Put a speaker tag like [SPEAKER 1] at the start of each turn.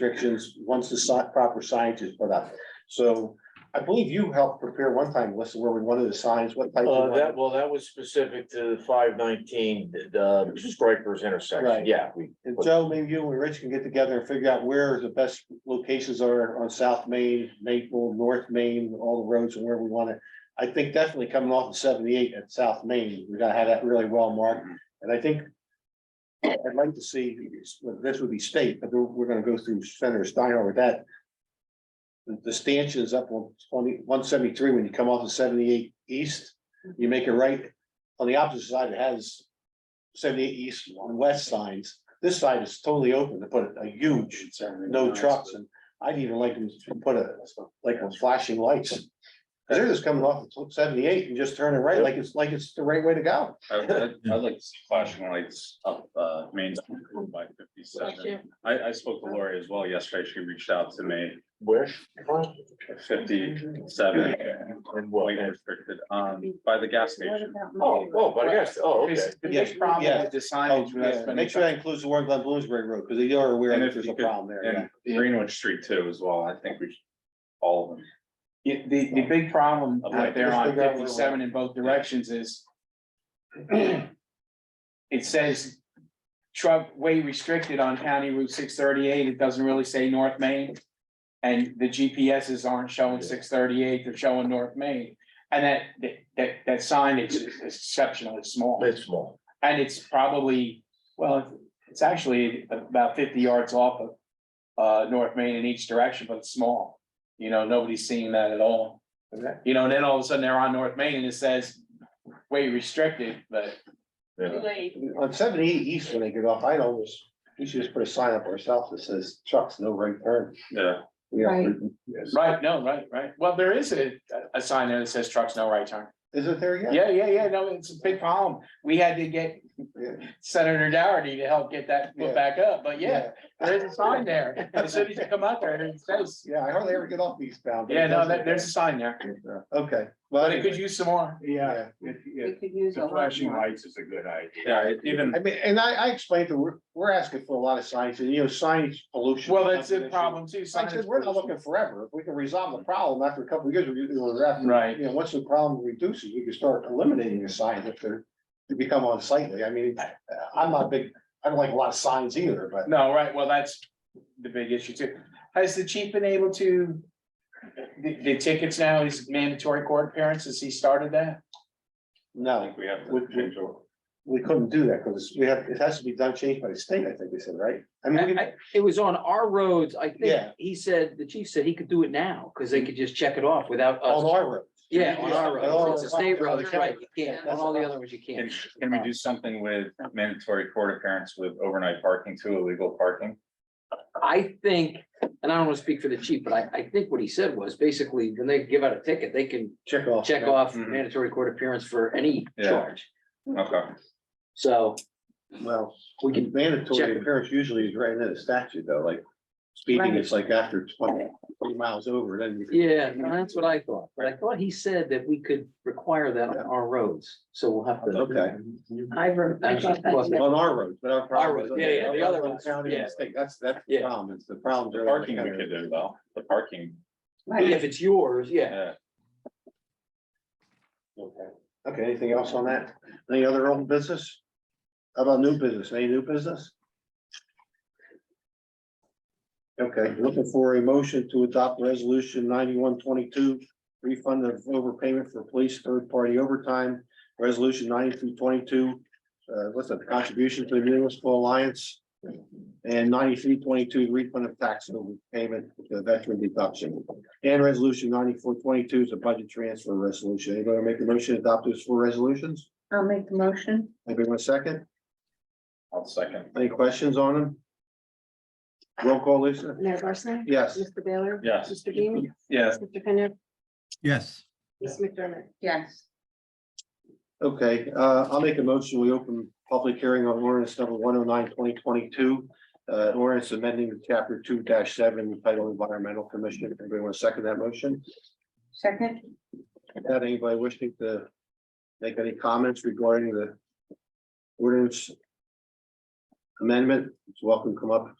[SPEAKER 1] restrictions once the si- proper signage is put up. So I believe you helped prepare one time, list where we wanted the signs, what type
[SPEAKER 2] Uh,
[SPEAKER 1] of.
[SPEAKER 2] that, well, that was specific to the five nineteen, the Strikers intersection,
[SPEAKER 1] Right.
[SPEAKER 2] yeah, we.
[SPEAKER 1] And Joe, maybe you and Rich can get together and figure out where the best locations are on South Main, Maple, North Main, all the roads and where we want to. I think definitely coming off of seventy-eight at South Main, we gotta have that really well marked. And I think I'd like to see, this would be state, but we're, we're gonna go through Senator Steiner with that. The- The stanchions up on 20 173 when you come off of seventy-eight east, you make a right. On the opposite side, it has seventy-eight east on west signs. This side is totally open to put a huge, no trucks, and I'd even like them to put a, like a flashing lights. 'Cause They're just coming off of seventy-eight and just turning right like it's, like it's the right way to go.
[SPEAKER 3] I- I'd I'd like to see flashing lights up uh Main Street by fifty-seven. I I spoke to Lori as well yesterday. She reached out to me
[SPEAKER 2] Where?
[SPEAKER 3] fifty-seven.
[SPEAKER 2] And what?
[SPEAKER 3] Weight restricted um by the gas station.
[SPEAKER 2] Oh, oh, but I guess, oh, okay.
[SPEAKER 4] There's- There's problem with the
[SPEAKER 1] Oh,
[SPEAKER 4] signage. that's
[SPEAKER 1] yeah,
[SPEAKER 4] been-
[SPEAKER 1] Make sure that includes the Warren Glen Bloomsbury Road, because they are aware
[SPEAKER 3] And
[SPEAKER 1] that
[SPEAKER 3] if
[SPEAKER 1] there's
[SPEAKER 3] you
[SPEAKER 1] a
[SPEAKER 3] could-
[SPEAKER 1] problem there. yeah.
[SPEAKER 3] And Greenwich Street too as well. I think we should, all of them.
[SPEAKER 4] The, the the big problem out
[SPEAKER 1] Figure
[SPEAKER 4] there on
[SPEAKER 1] out where we're-
[SPEAKER 4] fifty-seven in both directions is it says truck way restricted on County Route six thirty-eight. It doesn't really say North Main. And the GPSs aren't showing six thirty-eight, they're showing North Main. And that, that, that, that signage is exceptionally small.
[SPEAKER 2] It's small.
[SPEAKER 4] And it's probably, well, it's actually about fifty yards off of uh, North Main in each direction, but it's small. You know, nobody's seeing that at all.
[SPEAKER 1] Okay.
[SPEAKER 4] You know, and then all of a sudden they're on North Main and it says way restricted, but
[SPEAKER 2] Yeah.
[SPEAKER 1] On seventy-eight east, when they get off, I always, we should just put a sign up ourselves that says trucks, no right turn.
[SPEAKER 3] Yeah,
[SPEAKER 1] You know,
[SPEAKER 5] Right.
[SPEAKER 1] yes.
[SPEAKER 4] right, no, right, right. Well, there is a a sign there that says trucks no right turn.
[SPEAKER 1] Is it there yet?
[SPEAKER 4] Yeah, yeah, yeah, no, it's a big problem. We had to get
[SPEAKER 1] Yeah.
[SPEAKER 4] Senator Dougherty to help get that
[SPEAKER 1] Yeah.
[SPEAKER 4] put back up, but yeah, there is a sign there. As soon as you come out there, it says,
[SPEAKER 1] Yeah, I hardly ever get off eastbound. but it
[SPEAKER 4] yeah, no,
[SPEAKER 1] does
[SPEAKER 4] that-
[SPEAKER 1] it.
[SPEAKER 4] there's a sign there.
[SPEAKER 1] Okay, well,
[SPEAKER 4] But it could use some more.
[SPEAKER 1] yeah.
[SPEAKER 5] We could use a lot more.
[SPEAKER 6] lights is a good idea.
[SPEAKER 3] yeah, even
[SPEAKER 1] I mean, and I, I explained that we're, we're asking for a lot of signs, and you know, signage pollution.
[SPEAKER 4] Well,
[SPEAKER 1] is
[SPEAKER 4] that's the
[SPEAKER 1] another issue.
[SPEAKER 4] problem too.
[SPEAKER 1] I said, we're not looking forever. If we can resolve the problem after a couple of years, we can do that.
[SPEAKER 4] Right.
[SPEAKER 1] You know, once the problem reduces, we can start eliminating the signs if they're, to become unsightly. I mean, I'm not big, I don't like a lot of signs either, but.
[SPEAKER 4] No, right, well, that's the big issue too. Has the chief been able to? The, the tickets now is mandatory court appearances. He started that?
[SPEAKER 3] I
[SPEAKER 1] No,
[SPEAKER 3] think we have to
[SPEAKER 1] Would-
[SPEAKER 3] change over.
[SPEAKER 1] we couldn't do that because we have, it has to be done, changed by the state, I think they said, right? I mean, we
[SPEAKER 7] I- It was on our roads, I
[SPEAKER 1] Yeah.
[SPEAKER 7] think, he said, the chief said he could do it now, because they could just check it off without
[SPEAKER 1] all
[SPEAKER 7] us.
[SPEAKER 1] our roads. Oh,
[SPEAKER 7] Yeah, on our
[SPEAKER 1] Yeah, all-
[SPEAKER 7] roads, it's a state
[SPEAKER 1] all- all
[SPEAKER 7] road,
[SPEAKER 1] the
[SPEAKER 7] right,
[SPEAKER 1] county.
[SPEAKER 7] you can't, on all the other ones you
[SPEAKER 3] Can
[SPEAKER 7] can't.
[SPEAKER 3] can we do something with mandatory court appearance with overnight parking too, illegal parking?
[SPEAKER 7] I think, and I don't want to speak for the chief, but I, I think what he said was, basically, when they give out a ticket, they can
[SPEAKER 1] Check off.
[SPEAKER 7] check off
[SPEAKER 3] Mhm.
[SPEAKER 7] mandatory court appearance for any
[SPEAKER 3] Yeah.
[SPEAKER 7] charge.
[SPEAKER 3] Okay,
[SPEAKER 7] So,
[SPEAKER 1] Well, we can mandatory
[SPEAKER 7] Check.
[SPEAKER 1] appearance usually is right in the statute though, like speeding, it's like after 20 20 miles over, then you can.
[SPEAKER 7] yeah, no, that's what I thought, but I thought he said that we could require that on our roads, so we'll have to.
[SPEAKER 1] Okay,
[SPEAKER 5] I re- I thought that-
[SPEAKER 7] Well,
[SPEAKER 1] on our roads, but our problem is.
[SPEAKER 7] roads, yeah, yeah, the other ones,
[SPEAKER 1] County and
[SPEAKER 7] yeah.
[SPEAKER 1] state, that's, that's the
[SPEAKER 7] Yeah.
[SPEAKER 1] problem, it's the problem.
[SPEAKER 3] the parking we could do though, the parking, uh,
[SPEAKER 7] If it's yours, yeah.
[SPEAKER 3] yeah.
[SPEAKER 1] Okay, Okay. anything else on that? Any other old business? How about new business, any new business? Okay, looking for a motion to adopt resolution ninety-one twenty-two, refund of overpayment for police third-party overtime. Resolution ninety-two twenty-two, uh, what's that, contribution to the municipal alliance? And ninety-three twenty-two, refund of tax overpayment to the veteran deduction. And resolution ninety-four twenty-two is a budget transfer resolution. Anybody wanna make a motion to adopt those four resolutions?
[SPEAKER 5] I'll make the motion.
[SPEAKER 1] Anybody want a second?
[SPEAKER 3] I'll second.
[SPEAKER 1] Any questions on them? Roll call, Lisa?
[SPEAKER 5] Mayor Barsney?
[SPEAKER 1] Yes.
[SPEAKER 5] Mr. Baylor?
[SPEAKER 3] Yes,
[SPEAKER 5] Mr. Bean?
[SPEAKER 3] yes,
[SPEAKER 5] Mr. Kenneth?
[SPEAKER 6] Yes,
[SPEAKER 5] Ms. McDermott? Yes.
[SPEAKER 1] Okay, uh, I'll make a motion. We open public hearing on ordinance number 109 2022. Uh, ordinance amending chapter two seven, title environmental commission. Anybody want to second that motion?
[SPEAKER 5] Second?
[SPEAKER 1] Had anybody wishing to make any comments regarding the ordinance amendment? It's welcome to come up